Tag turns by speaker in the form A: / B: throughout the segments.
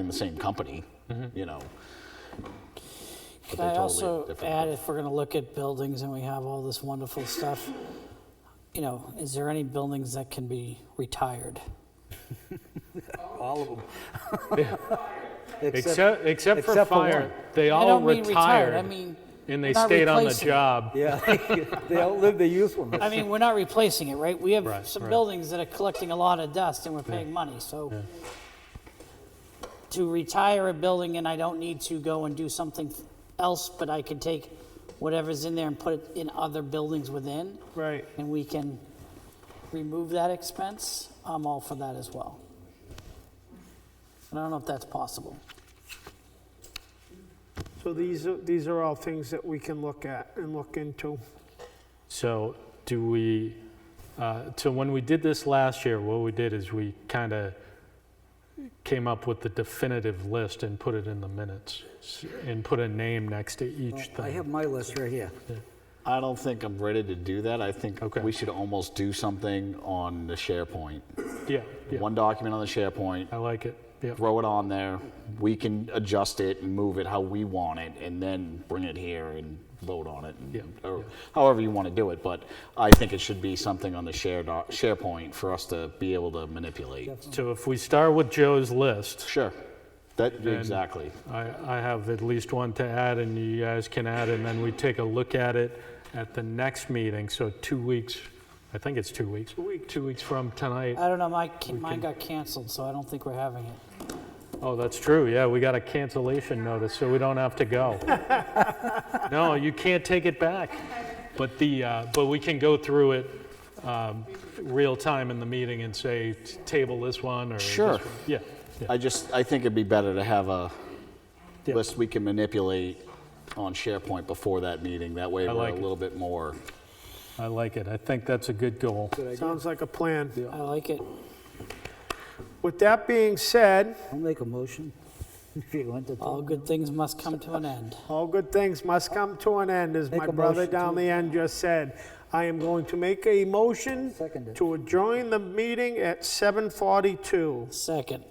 A: in the same company,
B: Mm-hmm.
A: you know. But
C: Can I
A: they're
C: also
A: totally different.
C: add, if we're going to look at buildings and we have all this wonderful stuff, you know, is there any buildings that can be retired?
D: All of them.
B: Except, except for
D: except for
B: fire,
D: one.
B: they
C: I
B: all
C: don't mean retired, I
B: retired
C: mean,
B: and
C: we're
B: they
C: not
B: stayed on the
C: replacing it.
B: job.
D: Yeah, they outlived their usefulness.
C: I mean, we're not replacing it, right? We have
B: Right,
C: some
B: right.
C: buildings that are collecting a lot of dust and we're paying money, so. To retire a building and I don't need to go and do something else, but I can take whatever's in there and put it in other buildings within.
B: Right.
C: And we can remove that expense, I'm all for that as well. And I don't know if that's possible.
E: So these, are- these are all things that we can look at and look into.
B: So do we, uh, so when we did this last year, what we did is we kind of came up with the definitive list and put it in the minutes s- and put a name next to each
D: I
B: thing.
D: have my list right here.
A: I don't think I'm ready to do that. I think
B: Okay.
A: we should almost do something on the SharePoint.
B: Yeah, yeah,
A: One document on the SharePoint,
B: I like it, yeah.
A: throw it on there. We can adjust it and move it how we want it, and then bring it here and vote on it, and,
B: Yeah,
A: or
B: yeah.
A: however you want to do it. But I think it should be something on the share doc, SharePoint for us to be able to manipulate.
B: So if we start with Joe's list,
A: Sure. That exactly.
B: I, I have at least one to add and you guys can add, and then we take a look at it at the next meeting, so two weeks, I think it's two weeks. Two weeks. from tonight.
C: I don't know, my, mine got canceled, so I don't think we're having it.
B: Oh, that's true. Yeah, we got a cancellation notice, so we don't have to go. No, you can't take it back. But the, uh, but we can go through it um, real time in the meeting and say, "T- table this one or. this
A: Sure.
B: one." Yeah, yeah,
A: I just, I think it'd be better to have a
B: Yeah.
A: list we can manipulate on SharePoint before that meeting. That way
B: I
A: we're a
B: like it.
A: little bit more.
B: I like it. I think that's a good goal.
E: Sounds like a plan.
C: I like it.
E: With that being said,
D: I'll make a motion if you want to.
C: All good things must come to an end.
E: all good things must come to an end, as
D: Make
E: my
D: a
E: brother
D: motion
E: down
D: to-
E: the end just said. I am going to make a motion
D: Second it.
E: to adjourn the meeting at 7:42.
C: Second.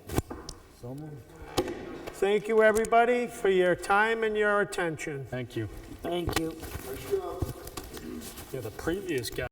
E: Thank you, everybody, for your time and your attention.
B: Thank you.
C: Thank you.
B: Yeah, the previous guy.